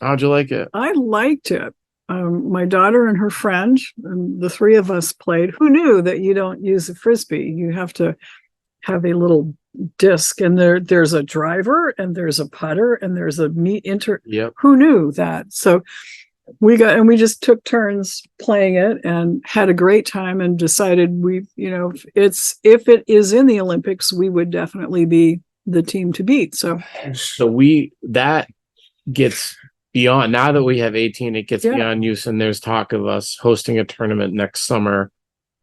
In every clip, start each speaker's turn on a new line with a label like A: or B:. A: How'd you like it?
B: I liked it. Um, my daughter and her friend, and the three of us played. Who knew that you don't use a frisbee? You have to have a little disc, and there there's a driver, and there's a putter, and there's a meet inter.
A: Yep.
B: Who knew that? So we got and we just took turns playing it and had a great time and decided we you know if it's if it is in the Olympics we would definitely be the team to beat. So
A: So we that gets beyond now that we have 18, it gets
B: Yeah.
A: beyond use, and there's talk of us hosting a tournament next summer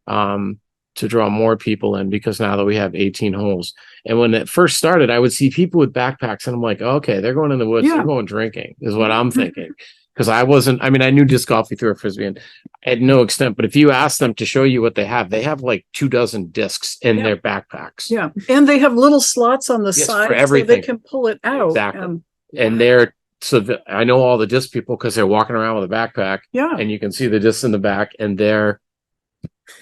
A: um to draw more people in because now that we have 18 holes. And when it first started, I would see people with backpacks, and I'm like, okay, they're going in the woods,
B: Yeah. Mm-hmm.
A: they're going drinking, is what I'm thinking. Because I wasn't, I mean, I knew disc golf, you threw a frisbee and at no extent, but if you ask them to show you what they have, they have like two dozen discs in
B: Yeah.
A: their backpacks.
B: yeah, and they have little slots on the
A: Yes, for
B: side so they
A: everything.
B: can pull it out.
A: Exactly.
B: and-
A: and they're so the, I know all the disc people because they're walking around with a backpack
B: yeah.
A: and you can see the discs in the back and they're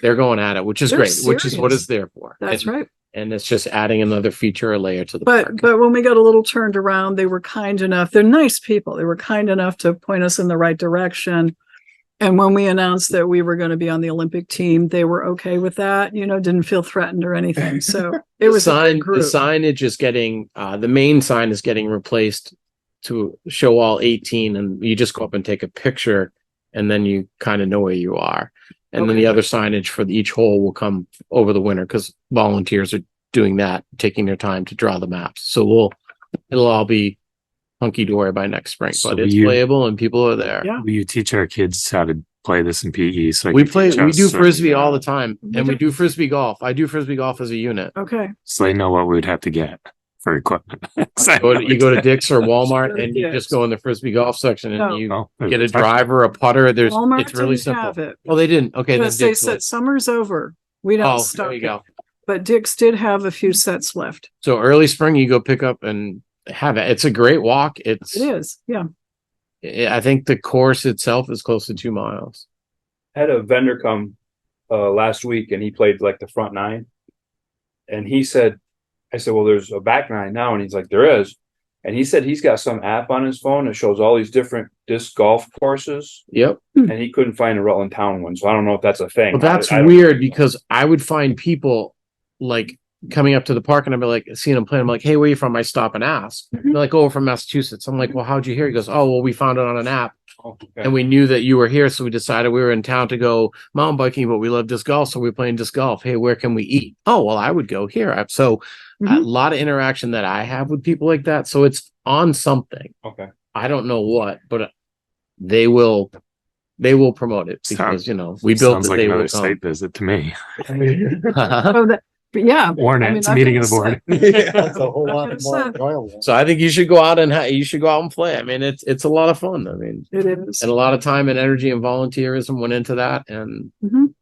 A: they're going at it, which is
B: They're
A: great, which is what
B: serious.
A: it's there for.
B: That's
A: and,
B: right.
A: and it's just adding another feature or layer to the
B: But
A: park.
B: but when we got a little turned around, they were kind enough. They're nice people. They were kind enough to point us in the right direction. And when we announced that we were going to be on the Olympic team, they were okay with that. You know, didn't feel threatened or anything. So it was
A: the sign. The
B: group.
A: signage is getting uh, the main sign is getting replaced to show all eighteen, and you just go up and take a picture, and then you kind of know where you are. And then
B: Okay.
A: the other signage for each hole will come over the winter because volunteers are doing that, taking their time to draw the maps. So we'll it'll all be hunky dory by next spring,
C: So
A: but it's
C: you-
A: playable and people are there.
B: Yeah.
C: Will you teach our kids how to play this in PE? So
A: We play, we do frisbee all the
C: time.
A: time,
B: We
A: and we
B: do-
A: do frisbee golf. I do frisbee golf as a unit.
B: okay.
C: So they know what we'd have to get for equipment. So I
A: go to,
C: know
A: you go to
C: exactly-
A: Dick's or Walmart
B: Really
A: and you just
B: good.
A: go in the frisbee golf section
B: No.
A: and you
C: Oh,
A: get a
C: it's-
A: driver, a putter. There's
B: Walmart
A: it's really
B: didn't have
A: simple.
B: it
A: Oh, they didn't. Okay, then
B: because they
A: Dick's
B: said
A: was.
B: summer's over. We don't
A: Oh,
B: stop.
A: there you go.
B: But Dick's did have a few sets left.
A: So early spring, you go pick up and have it. It's a great walk. It's.
B: It is, yeah.
A: I I think the course itself is close to two miles.
D: had a vendor come uh, last week and he played like the front nine. And he said, I said, well, there's a back nine now. And he's like, there is. And he said he's got some app on his phone that shows all these different disc golf courses.
A: Yep.
D: And he couldn't find a Rutland Town one. So I don't know if that's a thing.
A: Well, that's
D: I- I don't-
A: weird because I would find people like coming up to the park and I'd be like, seeing them playing. I'm like, hey, where you from? I stop and ask.
B: Mhm.
A: They're like, oh, we're from Massachusetts. I'm like, well, how'd you hear? He goes, oh, well, we found it on an app.
D: Oh, okay.
A: and we knew that you were here, so we decided we were in town to go mountain biking, but we love disc golf, so we're playing disc golf. Hey, where can we eat? Oh, well, I would go here. I- So a
E: Mm-hmm.
B: Mhm.
A: lot of interaction that I have with people like that. So it's on something.
D: Okay.
A: I don't know what, but they will, they will promote it because
C: Sounds-
A: you know we built
C: Sounds
A: it.
C: like
A: they um,
C: another
A: will come.
C: site visit to me.
B: Oh, that, but yeah.
C: Warn
B: I
C: it.
B: mean,
C: It's
B: I
C: a meeting of
B: think
C: the board.
E: It's a whole
B: I
E: lot
B: could've
E: more
B: said-
E: enjoyable.
A: so I think you should go out and ha- you should go out and play. I mean, it's it's a lot of fun. I mean,
B: It is.
A: and a lot of time and energy and volunteerism went into that, and
B: Mhm.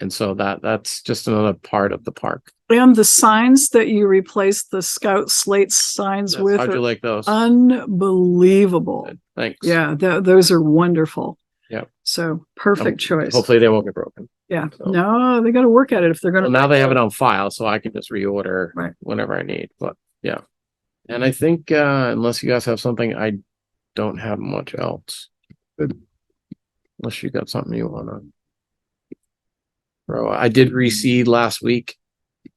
A: and so that that's just another part of the park.
B: And the signs that you replaced the scout slate signs
A: Yes,
B: with
A: How'd
B: are
A: you like those?
B: unbelievable.
A: Good. Thanks.
B: Yeah, tho- those are wonderful.
A: Yep. Um,
B: So perfect choice.
A: Hopefully they won't get broken.
B: Yeah.
A: so-
B: No, they got to work at it if they're
A: Well,
B: going to.
A: now they have it on file, so I can just reorder
B: Right.
A: whenever I need. But yeah. And I think uh unless you guys have something, I don't have much else. Unless you got something you wanna throw. I did reseed last week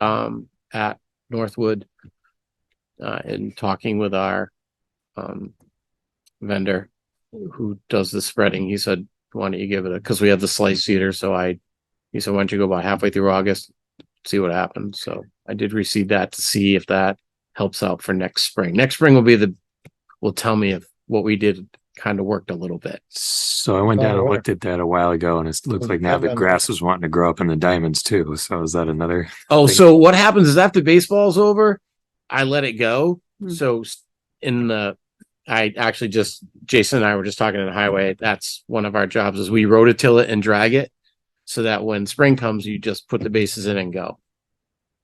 A: um at Northwood uh in talking with our um vendor who does the spreading. He said, Why don't you give it a because we have the slice cedar, so I he said, Why don't you go about halfway through August? see what happens. So I did receive that to see if that helps out for next spring. Next spring will be the will tell me if what we did kind of worked a little bit.
C: So I went down
A: Oh,
C: and looked at that a while ago and it looks like now the grass is wanting to grow up in the diamonds too. So is that another?
A: Oh,
C: Thank
A: so what happens is after baseball's over, I let it go.
B: Hmm.
A: So s- in the I actually just Jason and I were just talking in the highway. That's one of our jobs is we rototill it and drag it so that when spring comes, you just put the bases in and go.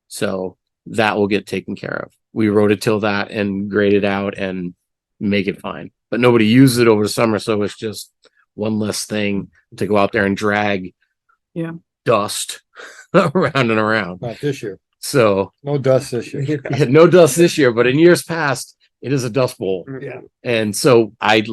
A: So that will get taken care of. We rototill that and grade it out and make it fine. But nobody uses it over the summer, so it's just one less thing to go out there and drag
B: Yeah.
A: dust around and around.
E: Not this year.
A: So
E: No dust this year.
A: no dust this year, but in years past, it is a dust bowl.
E: Yeah.
A: And so I